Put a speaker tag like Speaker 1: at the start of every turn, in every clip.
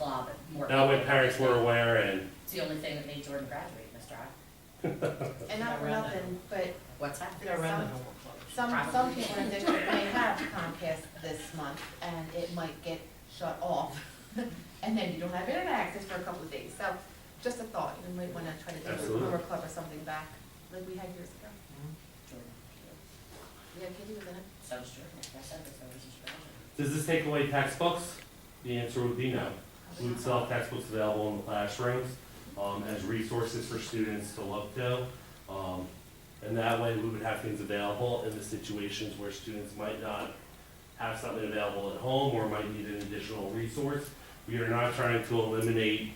Speaker 1: law, but more.
Speaker 2: Now my parents were aware and,
Speaker 1: It's the only thing that made Jordan graduate, Miss Rock.
Speaker 3: And not for nothing, but
Speaker 1: What's that?
Speaker 3: Yeah, around the some, some people in district may have Comcast this month, and it might get shut off. And then you don't have internet access for a couple of days, so just a thought, you might wanna try to do a
Speaker 2: Absolutely.
Speaker 3: summer club or something back, like we had years ago.
Speaker 1: Jordan.
Speaker 3: Yeah, Katie was in it.
Speaker 1: So was Jordan, like I said, but so was his brother.
Speaker 2: does this take away textbooks? The answer would be no. We would sell textbooks available in the classrooms, um, as resources for students to look to. Um, and that way we would have things available in the situations where students might not have something available at home or might need an additional resource. We are not trying to eliminate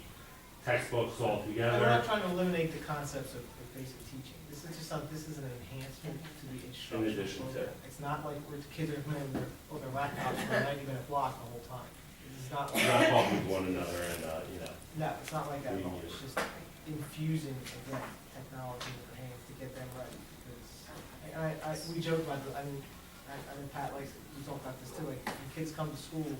Speaker 2: textbooks
Speaker 4: And We're not
Speaker 2: altogether.
Speaker 4: trying to eliminate the concepts of of basic teaching. This is just some, this is an enhancement to the instructional program.
Speaker 2: addition to.
Speaker 4: It's not like where the kids are playing their, on their laptops for a ninety-minute block the whole time. This is not
Speaker 2: We're
Speaker 4: like,
Speaker 2: not talking with one another and, uh, you know,
Speaker 4: no, it's not like that at all. It's just infusing, again, technology in their hands to get them ready. Because, I, I, I- we joke about, the- I mean, I, I mean, Pat likes, we talk about this too, like, when kids come to school,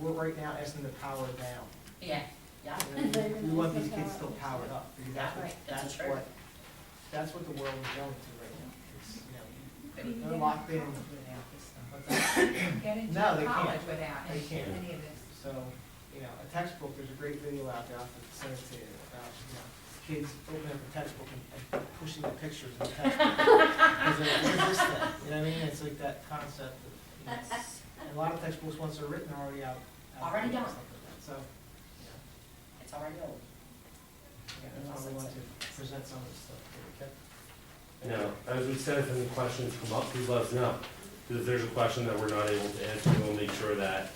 Speaker 4: we're right now asking them to power down.
Speaker 1: Yeah, yeah.
Speaker 4: You know, We we want these kids still powered up, because that's what,
Speaker 1: Right, that's
Speaker 4: that's
Speaker 1: true.
Speaker 4: what, that's what the world is going to right now. It's, you know, They're locked in, but that's-
Speaker 5: Get into
Speaker 4: No, they
Speaker 5: college
Speaker 4: can't.
Speaker 5: without
Speaker 4: They
Speaker 5: any
Speaker 4: can't.
Speaker 5: any of this.
Speaker 4: so, you know, a textbook, there's a great video out there, I'll have to send it to you, about, you know, kids opening up a textbook and and pushing the pictures in the textbook. Because they're like, what is this thing? You know what I mean? It's like that concept of, you know, it's- and a lot of textbooks, once they're written, are already out. out
Speaker 1: Already
Speaker 4: there and
Speaker 1: done.
Speaker 4: stuff like that. So, you know,
Speaker 1: It's already old.
Speaker 4: yeah, that's why we want to present some of this stuff, okay?
Speaker 2: you know, as we said, if any questions come up, please let us know. Because if there's a question that we're not able to answer, we'll make sure that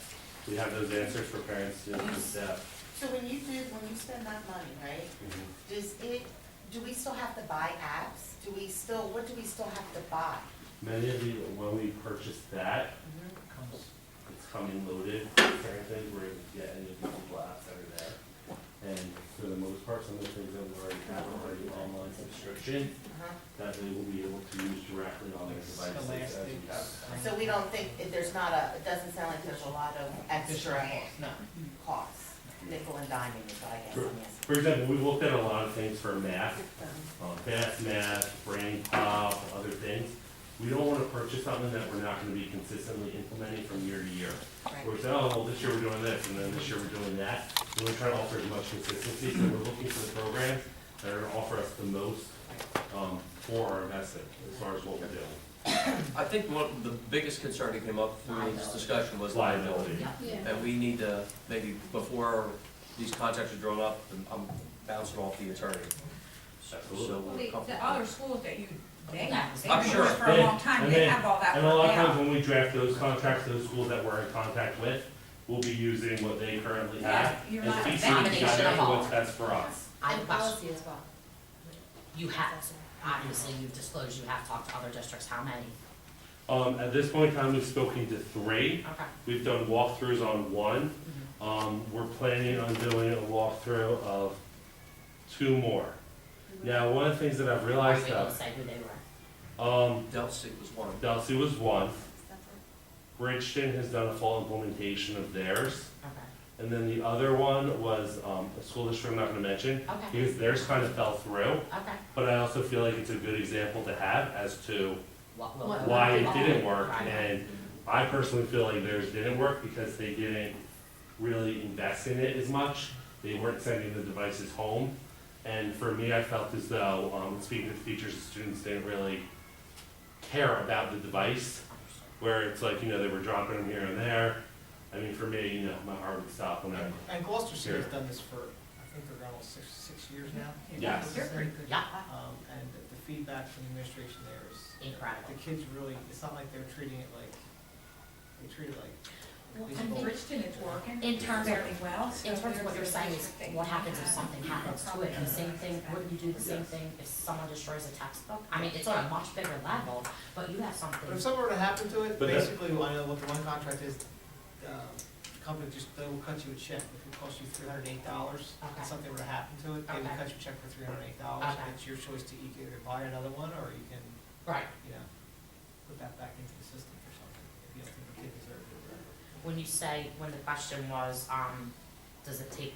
Speaker 2: we have those answers for parents, students, and staff.
Speaker 6: So when you do, when you spend that money, right,
Speaker 2: Mm-hmm.
Speaker 6: does it, do we still have to buy apps? Do we still, what do we still have to buy?
Speaker 2: Many of the, when we purchased that,
Speaker 4: Comes
Speaker 2: it's coming loaded, apparently, we're able to get any of the Google apps that are there. And for the most part, some of the things that we already have are already online subscription,
Speaker 6: Uh-huh.
Speaker 2: that they will be able to use directly on their devices as we have.
Speaker 6: So we don't think, if there's not a, it doesn't sound like there's a lot of extra
Speaker 4: No.
Speaker 6: costs, nickel and diming is what I guess I'm asking.
Speaker 2: For example, we looked at a lot of things for math, um, fast math, brain pop, other things. We don't wanna purchase something that we're not gonna be consistently implementing from year to year.
Speaker 6: Right.
Speaker 2: We're saying, oh, well, this year we're doing this, and then this year we're doing that. We wanna try to offer as much consistency, so we're looking for the programs that are gonna offer us the most, um, for our investment, as far as what we're doing.
Speaker 7: I think one, the biggest concern that came up through this discussion was liability.
Speaker 2: Liability.
Speaker 7: And we need to, maybe before these contracts are drawn up, and I'm bouncing off the attorney. So so
Speaker 5: Well,
Speaker 7: we're
Speaker 5: The, the
Speaker 7: comfortable.
Speaker 5: other schools that you, they, they've
Speaker 1: Yeah.
Speaker 5: been doing
Speaker 7: sure.
Speaker 5: this for a long time,
Speaker 2: And
Speaker 5: they
Speaker 2: then-
Speaker 5: have all that
Speaker 2: And a lot of
Speaker 5: worked
Speaker 2: times
Speaker 5: out.
Speaker 2: when we draft those contracts, those schools that we're in contact with, will be using what they currently have.
Speaker 5: Yeah, you're
Speaker 2: and
Speaker 5: not
Speaker 2: piecing it
Speaker 1: abandoning
Speaker 2: together
Speaker 1: it
Speaker 2: for
Speaker 1: all.
Speaker 2: what's best for us.
Speaker 1: I have a
Speaker 3: And
Speaker 1: question.
Speaker 3: policy as well.
Speaker 1: You have, obviously, you've disclosed you have talked to other districts. How many?
Speaker 2: Um, at this point in time, we've spoken to three.
Speaker 1: Okay.
Speaker 2: We've done walkthroughs on one. Um, we're planning on doing a walkthrough of two more. Now, one of the things that I've
Speaker 1: Are you
Speaker 2: realized
Speaker 1: able to
Speaker 2: that,
Speaker 1: say who they were?
Speaker 2: um,
Speaker 7: Del State was one.
Speaker 2: Delsey was one. Bridgeton has done a full implementation of theirs.
Speaker 1: Okay,
Speaker 2: And then the other one was, um, a school district I'm not gonna mention,
Speaker 1: okay,
Speaker 2: because theirs kind of fell through.
Speaker 1: okay.
Speaker 2: But I also feel like it's a good example to have as to
Speaker 1: What will-
Speaker 2: why it didn't work.
Speaker 1: Right.
Speaker 2: And I personally feel like theirs didn't work because they didn't really invest in it as much. They weren't sending the devices home. And for me, I felt as though, um, speaking to teachers and students, didn't really care about the device. Where it's like, you know, they were dropping them here and there. I mean, for me, you know, my heart would stop when I,
Speaker 4: And Gloucester City's done this for, I think they're almost six, six years now.
Speaker 2: Yes.
Speaker 4: They're pretty good.
Speaker 1: Yeah,
Speaker 4: Um, and the- the feedback from the administration there is,
Speaker 1: incredible.
Speaker 4: the kids really, it's not like they're treating it like, they treat it like.
Speaker 5: Well,
Speaker 4: baseball.
Speaker 5: and Bridgeton is working
Speaker 1: In terms of,
Speaker 5: fairly well, so.
Speaker 1: in terms of what you're
Speaker 5: there's a
Speaker 1: saying
Speaker 5: lot
Speaker 1: is,
Speaker 5: of things
Speaker 1: what happens if
Speaker 5: that
Speaker 1: something happens to it, the same thing, wouldn't you do the same thing if someone destroys a textbook? I mean, it's on a much bigger level, but you have something.
Speaker 4: But if something were to happen to it,
Speaker 2: But that-
Speaker 4: basically, I know what the one contract is, um, the company just, they will cut you a check, it could cost you three hundred and eight dollars.
Speaker 1: Okay.
Speaker 4: If something were to happen to it, they
Speaker 1: Okay.
Speaker 4: would cut you a check for three hundred and eight dollars,
Speaker 1: Okay.
Speaker 4: and it's your choice to either buy another one, or you can,
Speaker 1: Right,
Speaker 4: you know, put that back into the system for something, if you don't think the kid deserved it. or whatever.
Speaker 1: when you say, when the question was, um, does it take